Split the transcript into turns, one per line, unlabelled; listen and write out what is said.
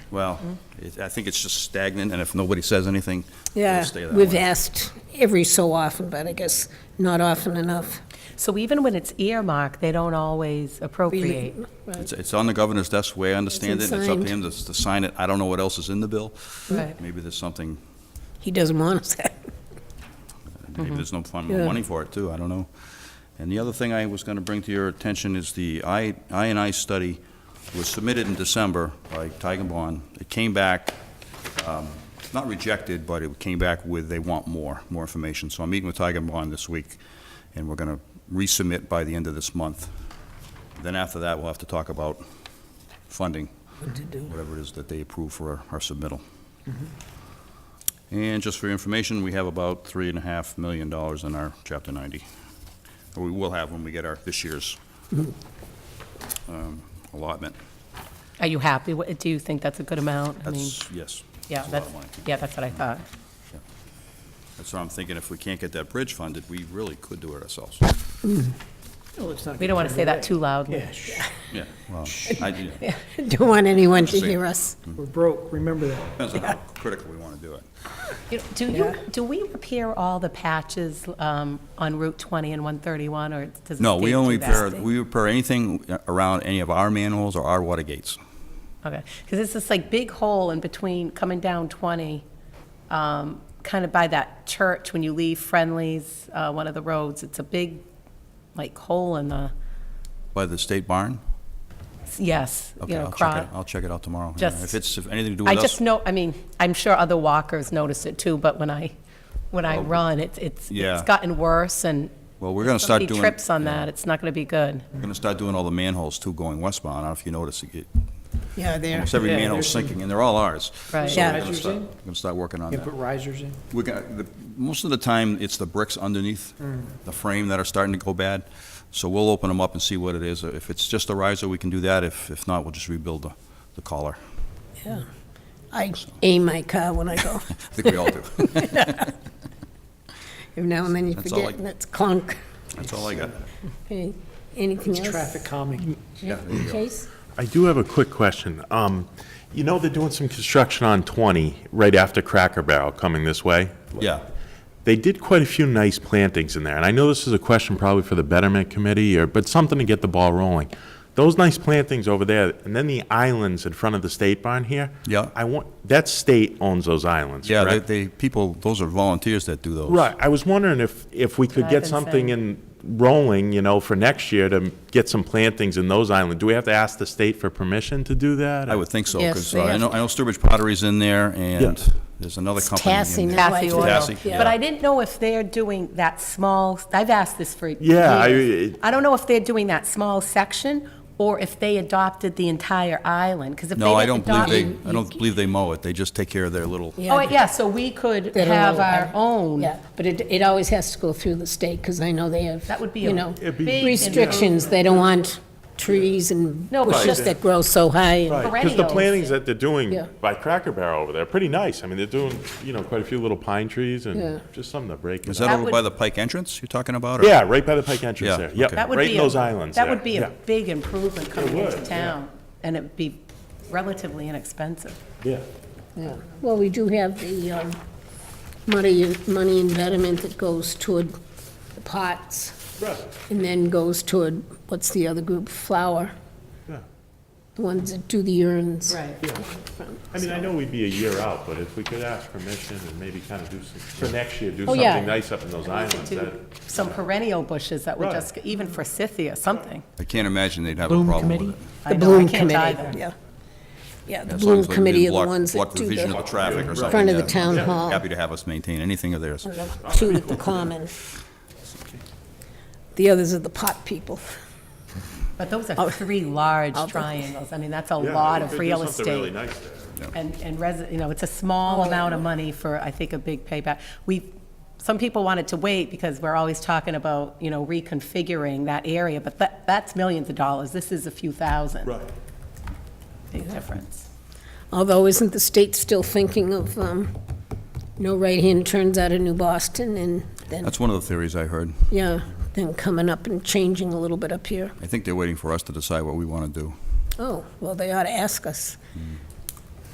Well, it- I think it's just stagnant, and if nobody says anything, it'll
Yeah,
stay that way.
we've asked every so often, but I guess not often enough.
So even when it's earmarked, they don't always appropriate.
It's, it's on the governor's desk, way I understand it, and it's up to
signed.
him to, to sign it. I don't know what else is in the bill.
Right.
Maybe there's something,
He doesn't want us that.
maybe there's no fund
Yeah.
money for it, too, I don't know. And the other thing I was gonna bring to your attention is the I, I and I study was submitted in December by Bond. It came back, um, not rejected, but it came back with, they want more, more information. So I'm meeting with Bond this week, and we're gonna resubmit by the end of this month. Then after that, we'll have to talk about funding, whatever it is that they approve for our submittal. And just for your information, we have about three and a half million dollars in our Chapter 90. Or we will have when we get our, this year's
Mm-hmm.
um, allotment.
Are you happy? with- Do you think that's a good amount? I mean,
That's, yes.
yeah,
it's a lot
that's,
of money.
yeah, that's what I thought.
That's what I'm thinking, if we can't get that bridge funded, we really could do it ourselves.
We don't want to say that too loudly.
Yeah, shh,
Yeah, well, I, do-
Don't want anyone to
Interesting.
hear us.
we're broke, remember that.
depends on how critical we want to do it.
You know, Do you, do we repair all the patches um, on Route 20 and 131, or does the state
No, we only
do that?
repair, we repair anything uh, around any of our manholes or our water gates.
Okay, because it's this like big hole in between coming down 20, um, kind of by that church when you leave Friendly's, uh, one of the roads. It's a big, like, hole in the,
By the state barn?
yes, you
Okay,
know,
I'll check
across.
it, I'll check it out tomorrow. Yeah,
Just-
If it's, if anything to do
I
with us,
just know, I mean, I'm sure other walkers notice it too, but when I, when I
Oh.
run, it's, it's,
Yeah.
it's gotten worse and
well, we're going to start
somebody
doing.
trips on
yeah.
that, it's not gonna be good.
We're gonna start doing all the manholes too going westbound, I don't know if you noticed, it-
Yeah, there.
almost every
Yeah,
manhole's
there's some-
sinking, and they're all ours.
Right.
So we're
Yeah.
gonna
Risers
start-
in?
We're gonna start working on
You put
that.
risers in?
We're gonna, the, most of the time, it's the bricks underneath the frame that are starting to go bad, so we'll open them up and see what it is. If it's just a riser, we can do that, if, if not, we'll just rebuild the, the collar.
Yeah. I aim my car when I go.
I think we all do.
Every now and then you
That's all
forget,
I-
and that's clunk.
That's all I got.
Okay, Anything else?
Traffic calming.
Yeah, there you go.
Chase?
I do have a quick question. Um, You know, they're doing some construction on 20, right after Cracker Barrel, coming this way?
Yeah.
They did quite a few nice plantings in there, and I know this is a question probably for the Betterment Committee, or, but something to get the ball rolling. Those nice plantings over there, and then the islands in front of the state barn here?
Yeah.
I want, that state owns those islands,
Yeah, they,
correct?
they, people, those are volunteers that do those.
Right, I was wondering if, if we could
I've
get
been
something in rolling, you know, for next year to get some plantings in those islands. Do we have to ask the state for permission to do that?
I would think so,
Yes,
because
they
I
have
know, I know Sturbridge Pottery's in there, and
Yeah.
there's another
It's
company
Tassie
in there.
now. Kathy
Kathy
Oil.
Kathy, yeah.
But I didn't know if they're doing that small, I've asked this for years.
Yeah, I-
I don't know if they're doing that small section or if they adopted the entire island, because if they
No, I
didn't
don't
adopt.
believe they, I don't believe they mow it, they just take care of their little,
Oh, yeah, so we could
They don't
have
know.
our own.
Yeah, but it, it always has to go through the state, because I know they have,
That would be
you
a
know,
It'd be- big
restrictions. They don't want trees and
No, but
bushes
just-
that grow so high. and-
Because the
perennials.
plantings that they're doing
Yeah.
by Cracker Barrel over there, are pretty nice. I mean, they're doing, you know, quite a few little pine trees
Yeah.
and just something to break
is
it
that
up.
That
over
would-
by the Pike entrance you're talking about? or-
Yeah, right by the Pike entrance
Yeah,
there.
okay.
Yep,
That would
right
be
in
a-
those islands
That
there.
would be a
Yeah,
big improvement coming
would,
into
yeah.
town, and it'd be relatively inexpensive.
Yeah.
Yeah. Well, we do have the um, money, money investment that goes toward the pots,
Right.
and then goes toward, what's the other group, flower?
Yeah.
The ones that do the urns.
Right.
I mean, I know we'd be a year out, but if we could ask permission and maybe kind of do some, for next year, do
Oh, yeah.
something nice up in those
We could
islands.
do
that-
Some perennial bushes that would
Right.
just, even for Scythia, something.
I can't imagine they'd have a problem with it.
I
The
know, I
Bloom
can't
Committee,
either.
yeah. Yeah, the
As long
Bloom
as they
Committee are
didn't
the
block-
ones that do
Block the vision of the
the,
traffic or something.
front of the
yeah.
town hall.
Happy to have us maintain anything of theirs.
two at the common. The others are the pot people.
But those are three large
Oh. I'll-
triangles. I mean, that's a
Yeah,
lot
we
of
could do
real
something really
estate.
nice there.
And, and resi, you know, it's a
Oh.
small amount of money for, I think, a big payback. We, some people wanted to wait because we're always talking about, you know, reconfiguring that area, but that, that's millions of dollars. This is a few thousand.
Right.
Big difference.
Although, isn't the state still thinking of, um, no right-hand turns out of New Boston, and then,
That's one of the theories I heard.
yeah, then coming up and changing a little bit up here?
I think they're waiting for us to decide what we want to do.
Oh, well, they ought to ask us.